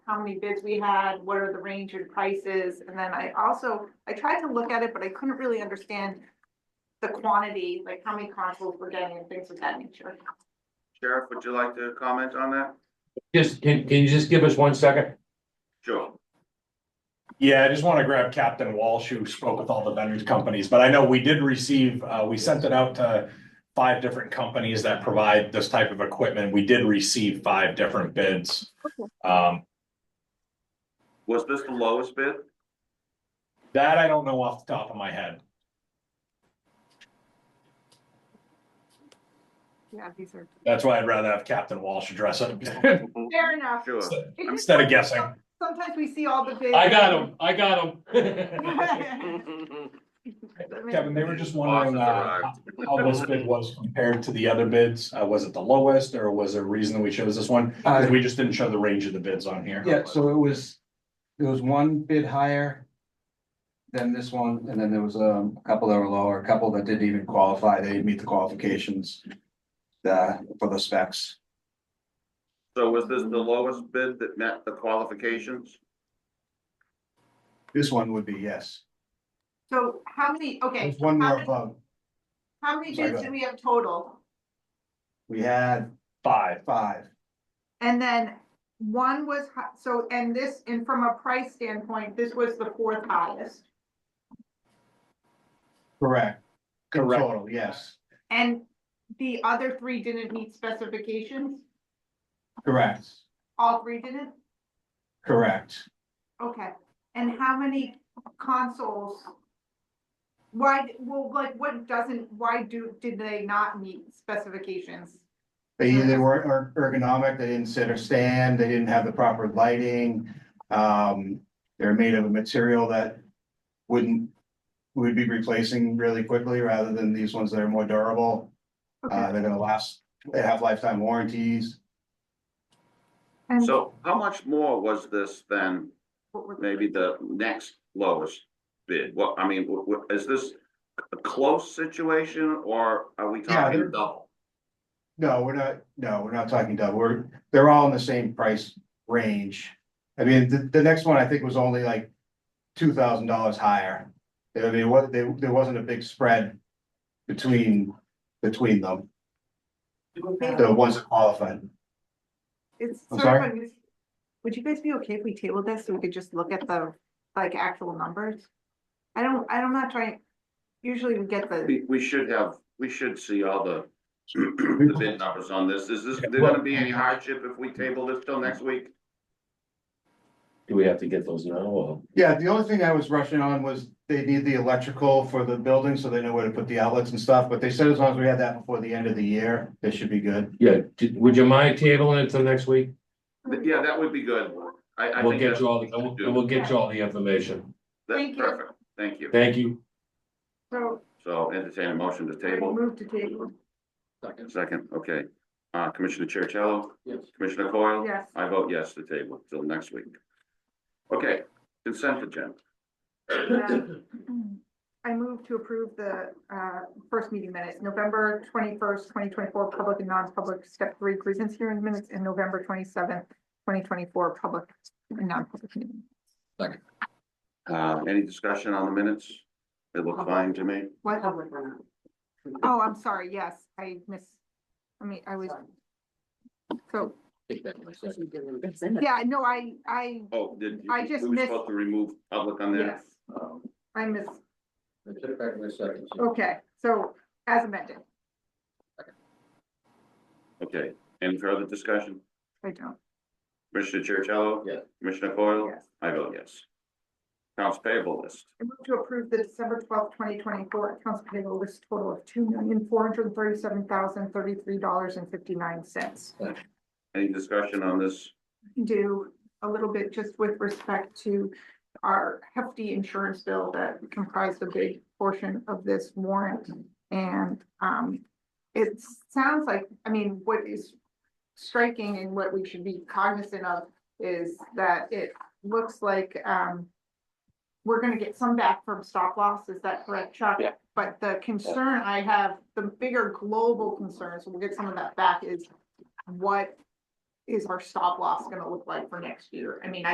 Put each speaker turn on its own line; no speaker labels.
how many bids we had, what are the range and prices, and then I also, I tried to look at it, but I couldn't really understand the quantity, like how many consoles we're getting and things of that nature.
Sheriff, would you like to comment on that?
Just, can, can you just give us one second?
Sure.
Yeah, I just want to grab Captain Walsh, who spoke with all the vendors companies, but I know we did receive, uh, we sent it out to five different companies that provide this type of equipment. We did receive five different bids. Um,
Was this the lowest bid?
that I don't know off the top of my head.
Yeah, these are.
That's why I'd rather have Captain Walsh address it
Fair enough.
Sure.
It just-
instead of guessing.
Sometimes we see all the bids.
I got him, I got him.
I mean,
Kevin, they were just wondering, uh,
Bosses
how this bid was compared to the other bids. Uh, was it the lowest or was there a reason that we chose this one? 'Cause
Uh,
we just didn't show the range of the bids on here.
yeah, so it was, there was one bid higher. Than this one, and then there was um, a couple that were lower, a couple that didn't even qualify, they didn't meet the qualifications. Uh, for the specs,
So was this the lowest bid that met the qualifications?
this one would be yes,
So how many, okay,
there's one
how
more
many-
above,
how many
Oh
Sorry,
bids
go
do we have total?
we had
Five.
five,
And then one was, hi- so, and this, and from a price standpoint, this was the fourth highest.
correct? In
Correct.
Total, yes,
And the other three didn't meet specifications?
correct,
All three didn't?
correct,
Okay. And how many consoles? Why, well, like, what doesn't, why do, did they not meet specifications?
they either weren't er- ergonomic, they didn't sit or stand, they didn't have the proper lighting. Um, they're made of a material that wouldn't, would be replacing really quickly rather than these ones that are more durable. Uh,
Okay.
they're gonna last, they have lifetime warranties.
And
So how much more was this than
what were the-
maybe the next lowest bid? What, I mean, wh- wh- is this a close situation or are we
Yeah, they're-
talking double?
No, we're not, no, we're not talking double, we're, they're all in the same price range. I mean, the, the next one I think was only like two thousand dollars higher. I mean, what, there, there wasn't a big spread between, between them, the ones that qualified.
It's
I'm
sort of, unus- would you guys be okay if we tabled this so we could just look at the, like, actual numbers? I don't, I'm not trying, usually we get the,
We, we should have, we should see all the the bid numbers on this. Is this, there gonna be any hardship if we table this till next week?
Do we have to get those now or?
Yeah, the only thing I was rushing on was they need the electrical for the building, so they know where to put the outlets and stuff, but they said as long as we had that before the end of the year, they should be good.
Yeah, d- would you mind tabling it till next week?
Th- Yeah, that would be good. I, I
We'll
think
get
that's.
you all, the we'll, we'll get you all the information.
That's
Thank you.
perfect. Thank you.
Thank you.
so,
So entertain a motion to
I
table.
moved to table,
Second, okay. Uh, Commissioner Chercello?
Yes.
Commissioner Coyle?
yes.
I vote yes to table till next week. Okay, consent agenda.
I move to approve the, uh, first meeting minutes, November twenty-first, twenty twenty-four, public and non-public, step three, grievance hearing minutes, and November twenty-seventh, twenty twenty-four, public and non-public meeting.
Uh, any discussion on the minutes? They look fine to me.
What? Oh, I'm sorry, yes, I miss, I mean, I was. So, yeah, no, I, I,
Oh, did. you-
I just
We were
missed-
supposed to remove public on there.
yes, I miss,
back in a second.
okay, so as amended,
Okay, any further discussion?
I don't,
Commissioner Chercello?
Yes.
Commissioner Coyle?
yes.
I vote yes. Accounts payable list.
I move to approve the December twelfth, twenty twenty-four accounts payable list total of two million, four hundred and thirty-seven thousand, thirty-three dollars and fifty-nine cents.
Any discussion on this?
Do a little bit just with respect to our hefty insurance bill that comprised a big portion of this warrant. And, um, it sounds like, I mean, what is striking and what we should be cognizant of is that it looks like, um, we're gonna get some back from stop loss, is that correct, Chuck?
Yeah.
But the concern I have, the bigger global concern, so we'll get some of that back, is what is our stop loss gonna look like for next year? I mean, I